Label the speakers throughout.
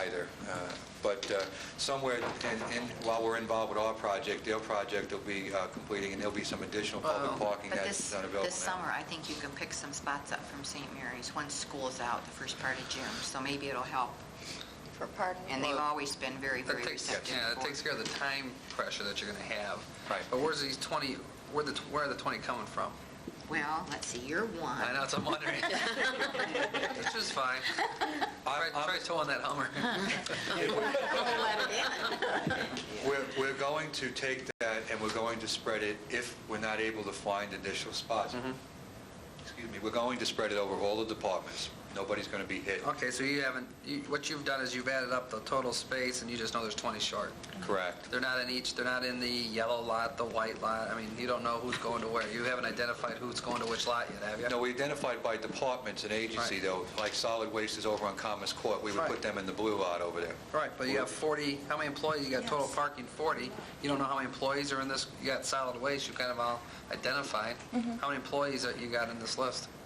Speaker 1: either. Uh, But uh, somewhere, in- in- while we're involved with our project, their project will be uh, completing, and there'll be some additional public parking
Speaker 2: Oh, But
Speaker 1: that's
Speaker 2: this,
Speaker 1: not available now.
Speaker 2: this summer, I think you can pick some spots up from St. Mary's once school's out, the first part of June, so maybe it'll help.
Speaker 3: for parking.
Speaker 2: And they've
Speaker 4: Well,
Speaker 2: always been very, very
Speaker 4: That takes,
Speaker 2: receptive.
Speaker 4: yeah, that
Speaker 2: for-
Speaker 4: takes care of the time pressure that you're going to have.
Speaker 1: Right.
Speaker 4: But where's these 20, where the, where are the 20 coming from?
Speaker 2: Well, let's see, year one.
Speaker 4: I know, that's what I'm wondering. Which is fine. Try try towing that Hummer.
Speaker 1: We're, we're going to take that and we're going to spread it if we're not able to find additional spots.
Speaker 4: Mm-hmm.
Speaker 1: Excuse me, we're going to spread it over all the departments. Nobody's going to be hit.
Speaker 4: Okay, so you haven't, you- what you've done is you've added up the total space, and you just know there's 20 short.
Speaker 1: Correct.
Speaker 4: They're not in each, they're not in the yellow lot, the white lot. I mean, you don't know who's going to where. You haven't identified who's going to which lot yet, have you?
Speaker 1: No, we identified by departments and agency
Speaker 4: Right.
Speaker 1: though, like solid waste is over on Commerce Court. We would
Speaker 4: Right.
Speaker 1: put them in the blue lot over there.
Speaker 4: Right, but you have 40, how many employees, you got total parking 40, you don't know how many employees are in this, you got solid waste, you kind of all identified. How many employees that you got in this list?
Speaker 5: Mm-hmm.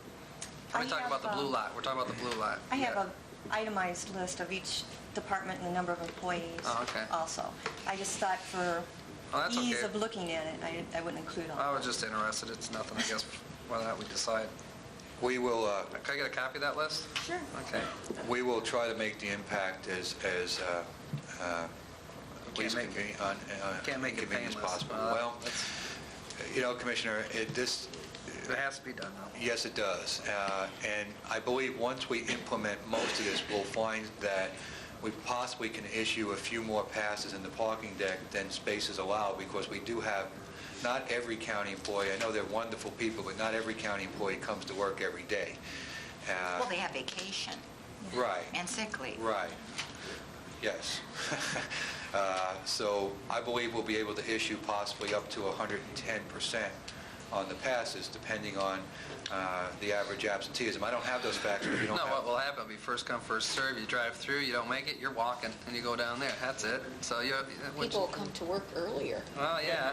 Speaker 5: I
Speaker 4: We're talking about the
Speaker 5: have,
Speaker 4: blue
Speaker 5: um,
Speaker 4: lot, we're talking about the blue lot.
Speaker 5: I have a itemized list of each department and the number of employees
Speaker 4: Oh, okay.
Speaker 5: also. I just thought for
Speaker 4: Oh, that's
Speaker 5: ease
Speaker 4: okay. Oh,
Speaker 5: of looking at it, I I wouldn't include all.
Speaker 4: I was just interested, it's nothing, I guess, whether or not we decide.
Speaker 1: We will, uh,
Speaker 4: Can I get a copy of that list?
Speaker 5: Sure.
Speaker 4: Okay.
Speaker 1: we will try to make the impact as, as, uh, uh, least
Speaker 4: make-
Speaker 1: convenient, on- uh,
Speaker 4: Can't make it
Speaker 1: inconvenient
Speaker 4: painless.
Speaker 1: as possible.
Speaker 4: Uh,
Speaker 1: Well,
Speaker 4: that's-
Speaker 1: you know, Commissioner, it, this,
Speaker 4: It has to be done now.
Speaker 1: Yes, it does. Uh, And I believe once we implement most of this, we'll find that we possibly can issue a few more passes in the parking deck than spaces allow, because we do have, not every county employee, I know they're wonderful people, but not every county employee comes to work every day. Uh,
Speaker 2: Well, they have vacation
Speaker 1: Right.
Speaker 2: and sick leave.
Speaker 1: Right. Yes. Uh, So I believe we'll be able to issue possibly up to 110% on the passes, depending on uh, the average absenteeism. I don't have those facts, but we don't
Speaker 4: No, what
Speaker 1: have...
Speaker 4: will happen, will be first come, first serve. you drive through, you don't make it, you're walking, and you go down there, that's it. So you, which-
Speaker 3: People will come to work earlier.
Speaker 4: well, yeah.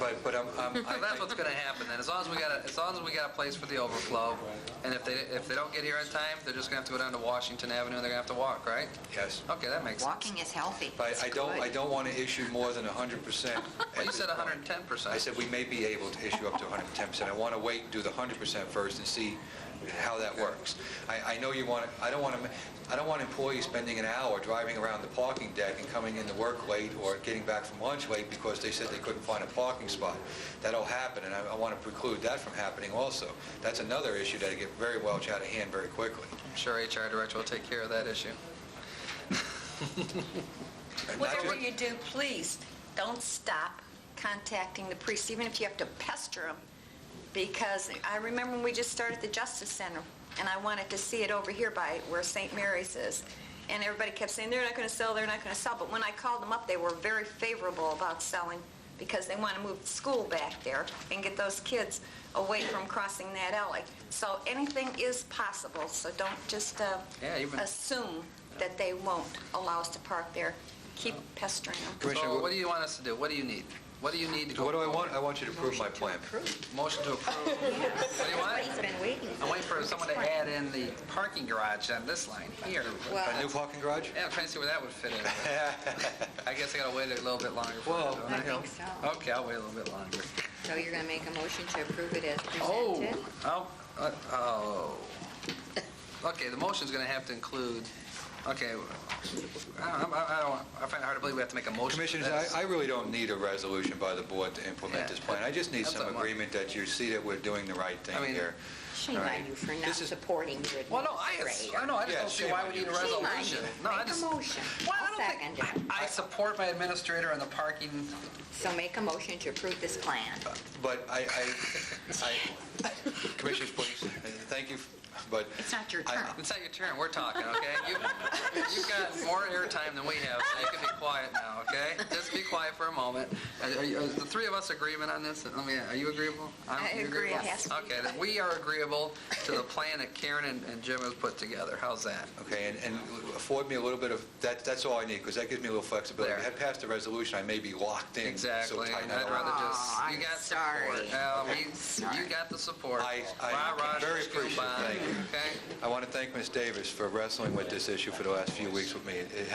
Speaker 1: But, but I'm... I'm- I-
Speaker 4: So that's what's going to happen then, as long as we got, a- as long as we got a place for the overflow, and if they, if they don't get here in time, they're just going to have to go down to Washington Avenue, and they're going to have to walk, right?
Speaker 1: Yes.
Speaker 4: Okay, that makes sense.
Speaker 2: Walking is healthy.
Speaker 1: But
Speaker 2: It's
Speaker 1: I don't, I
Speaker 2: good.
Speaker 1: don't want to issue more than 100%.
Speaker 4: Well, you
Speaker 1: at
Speaker 4: said
Speaker 1: this point.
Speaker 4: 110%.
Speaker 1: I said we may be able to issue up to 110%. I want to wait and do the 100% first and see how that works. I, I know you want, to. I don't want to, I don't want employees spending an hour driving around the parking deck and coming into work late or getting back from lunch late because they said they couldn't find a parking spot. That'll happen, and I, I want to preclude that from happening also. That's another issue that'll get very well out of hand very quickly.
Speaker 4: I'm sure HR Director will take care of that issue.
Speaker 1: And not
Speaker 3: Whatever
Speaker 1: just-
Speaker 3: you do, please, don't stop contacting the priests, even if you have to pester them, because I remember when we just started the Justice Center, and I wanted to see it over here by where St. Mary's is, and everybody kept saying, they're not going to sell, they're not going to sell, but when I called them up, they were very favorable about selling, because they want to move the school back there and get those kids away from crossing that alley. So anything is possible, so don't just uh,
Speaker 4: Yeah, even-
Speaker 3: assume that they won't allow us to park there. Keep pestering them.
Speaker 1: Commissioner,
Speaker 4: So what do you want us to do? What do you need? What do you need to go?
Speaker 1: What do I want? I want you to approve my plan.
Speaker 4: Motion to approve. What do you
Speaker 3: Everybody's
Speaker 4: want?
Speaker 3: been waiting.
Speaker 4: I'm waiting for someone to add in the parking garage on this line here.
Speaker 1: A new parking garage?
Speaker 4: Yeah, I'm trying to see where that would fit in. I guess I gotta wait a little bit longer. for
Speaker 1: Well,
Speaker 4: that,
Speaker 2: I
Speaker 4: don't Uh,
Speaker 2: think so.
Speaker 4: Okay, I'll wait a little bit longer.
Speaker 2: So you're going to make a motion to approve it as
Speaker 4: Oh,
Speaker 2: presented?
Speaker 4: oh, uh, oh. Okay, the motion's gonna have to include, okay, I don't, I I don't, I find it hard to believe we have to make a motion. for
Speaker 1: Commissioners,
Speaker 4: this.
Speaker 1: I, I really don't need a resolution by the board to implement this plan. I just need
Speaker 4: That's
Speaker 1: some
Speaker 4: what I want.
Speaker 1: agreement that you see that we're doing the right
Speaker 4: I
Speaker 1: thing
Speaker 4: mean-
Speaker 1: here.
Speaker 6: Shame
Speaker 1: Right.
Speaker 6: on you for not
Speaker 1: This is-
Speaker 6: supporting your administrator.
Speaker 4: Well, no, I, I know, I just
Speaker 1: Yeah,
Speaker 4: don't see
Speaker 1: shame
Speaker 4: why
Speaker 1: on
Speaker 4: we
Speaker 1: you.
Speaker 4: need a
Speaker 6: Shame on
Speaker 4: resolution.
Speaker 6: you.
Speaker 4: No, I
Speaker 6: Make a
Speaker 4: just.
Speaker 6: motion.
Speaker 4: Well, I
Speaker 6: I'll
Speaker 4: don't think-
Speaker 6: second
Speaker 4: I I support my administrator on the parking,
Speaker 6: So make a motion to approve this plan.
Speaker 1: But I, I, I, Commissioners, please, uh, thank you, but.
Speaker 2: It's not your
Speaker 1: I-
Speaker 2: turn.
Speaker 4: it's not your turn, we're talking, okay? You- You've got more airtime than we have, so you can be quiet now, okay? Just be quiet for a moment. Are- are you- Is the three of us agreement on this? I mean, are you agreeable? I'm-
Speaker 3: I
Speaker 4: you
Speaker 3: agree.
Speaker 4: agreeable?
Speaker 3: Yes.
Speaker 4: Okay, then we are agreeable to the plan that Karen and and Jim have put together, how's that?
Speaker 1: Okay, and, and afford me a little bit of, that, that's all I need, because that gives me a little flexibility. If I
Speaker 4: There.
Speaker 1: had passed a resolution, I may be locked in. so
Speaker 4: Exactly,
Speaker 1: tight,
Speaker 4: and
Speaker 1: I
Speaker 4: I'd
Speaker 1: don't-
Speaker 4: rather just,
Speaker 2: Aw,
Speaker 4: you
Speaker 2: I'm
Speaker 4: got
Speaker 2: sorry.
Speaker 4: support. Um, you- You
Speaker 2: sorry.
Speaker 4: got the support.
Speaker 1: I- I
Speaker 4: Rah, rah,
Speaker 1: very
Speaker 4: shish,
Speaker 1: appreciate it.
Speaker 4: kumbaya,
Speaker 1: Thank you.
Speaker 4: Okay?
Speaker 1: I want to thank Ms. Davis for wrestling with this issue for the last few weeks with me. It- it